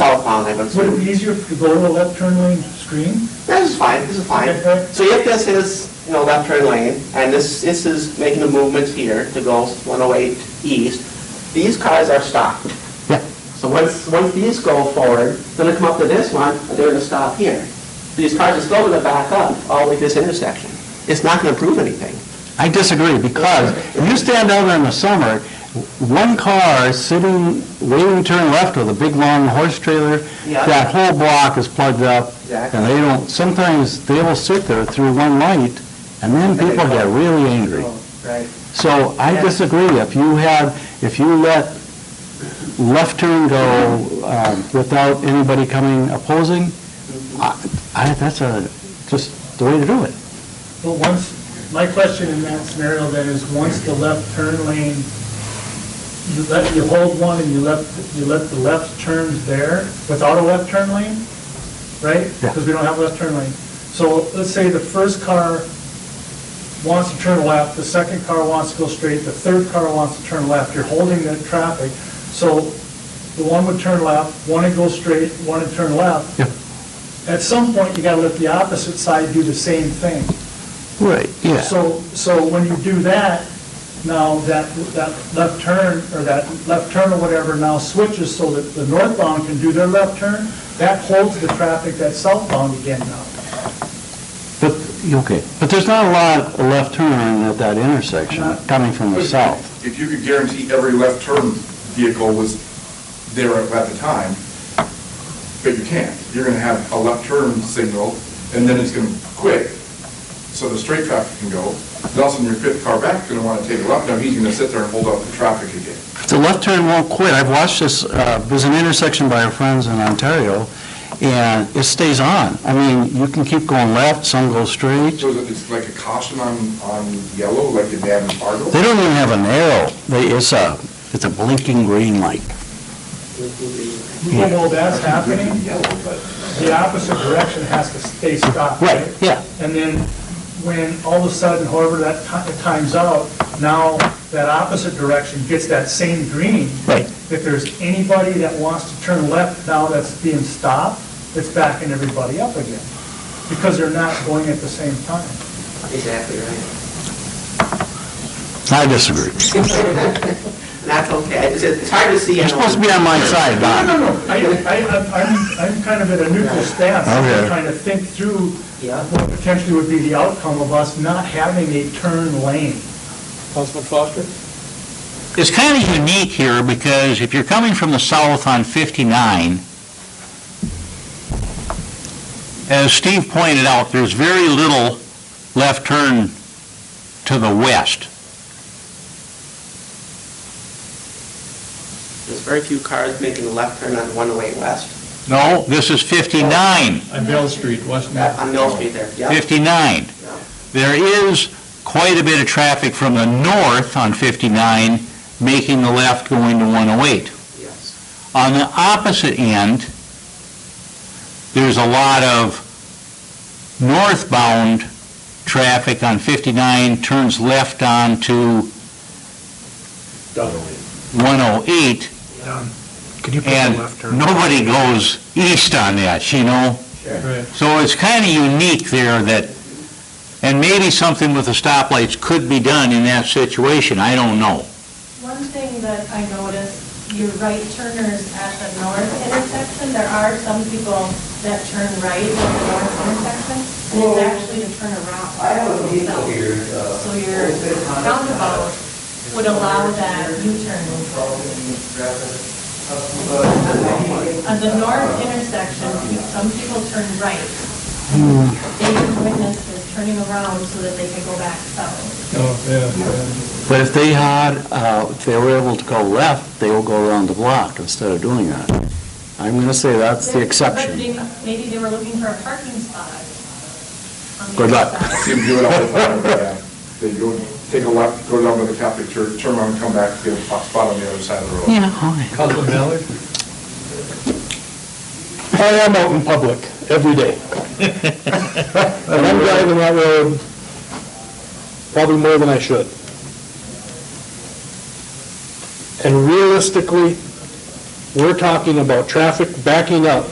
call upon them, but Would it be easier if you go to a left turn lane screen? this is fine, this is fine. Okay. So if this is, you know, left turn lane, and this, this is making the movements here to go 108 east, these cars are stopped. Yeah. So once, once these go forward, then they come up to this one, and they're gonna stop here. These cars are still gonna back up all the way to this intersection. It's not gonna prove anything. I disagree, because if you stand out there in the summer, one car sitting, waiting to turn left with a big, long horse trailer, Yeah. that whole block is plugged up. Exactly. And they don't, sometimes they will sit there through one light, and then they people get go. really angry. Oh, Right. So I Yeah. disagree. If you have, if you let left turn go um, without anybody coming opposing, I, Mm-hmm. I- that's a, just the way to do it. But once, my question in that scenario then is, once the left turn lane, you let, you hold one and you left, you let the left turns there without a left turn lane, right? Yeah. Because we don't have left turn lane. So let's say the first car wants to turn left, the second car wants to go straight, the third car wants to turn left. You're holding that traffic. So the one would turn left, one would go straight, one would turn left. Yep. At some point, you gotta let the opposite side do the same thing. Right, So, so when you do that, now that, that left turn, or that left turn or whatever now switches so that the northbound can do their left turn, that holds the traffic that's southbound again now. But, okay, but there's not a lot of left turn at that intersection coming from the south. If you could guarantee every left turn vehicle was there at the time, but you can't. You're going to have a left turn signal, and then it's going to quit, so the straight traffic can go. Then all of a sudden, your fifth car back is going to want to take a left, now he's going to sit there and hold up the traffic again. The left turn won't quit. I've watched this, uh, there's an intersection by our friends in Ontario, and it stays on. I mean, you can keep going left, some go straight. So it's like a caution on, on yellow, like in Adam Fargo. They don't even have an arrow. They, it's a, it's a blinking green light. Even though that's happening, Yellow, but. the opposite direction has to stay stopped. yeah. And then when all of a sudden, however that ti- it times out, now that opposite direction gets that same green. Right. If there's anybody that wants to turn left now that's being stopped, it's backing everybody up again because they're not going at the same time. Exactly right. I disagree. That's okay. It's, it's hard to see. You're supposed to be on my side, No, Don. no, no, I, I, I'm- I'm, I'm kind of at a neutral stance. Okay. I'm trying to think through Yeah. what potentially would be the outcome of us not having a turn lane. Councilman Foster? It's kind of unique here because if you're coming from the south on 59, as Steve pointed out, there's very little left turn to the west. There's very few cars making a left turn on 108 west, No, this is 59, On Bell Street, wasn't it? on Mill Street there, yeah. 59. Yeah. There is quite a bit of traffic from the north on 59 making the left going to 108. Yes. On the opposite end, there's a lot of northbound traffic on 59, turns left onto 108, Could you and nobody goes east on that, you know? So it's kind of unique there that, and maybe something with the stoplights could be done in that situation, I don't know. One thing that I noticed, your right turners at the north intersection, there are some people that turn right at the north intersection, and it's actually to turn around. I have a vehicle here. uh, So your roundabout would allow that U-turn. At the north intersection, some people turn right. They can witness this turning around so that they can go back south. Oh, But if they had, uh, if they were able to go left, they will go around the block instead of doing that. I'm going to say that's the But exception. they- Maybe they were looking for a parking spot. on the Good luck. other side. See them do it all the time, yeah. They go, take a left, go down to the Catholic church, turn around, come back, get a spot on the other side of the road. Councilman Mallard? I am out in public every day. And I'm driving that road probably more than I should. And realistically, We're talking about traffic backing up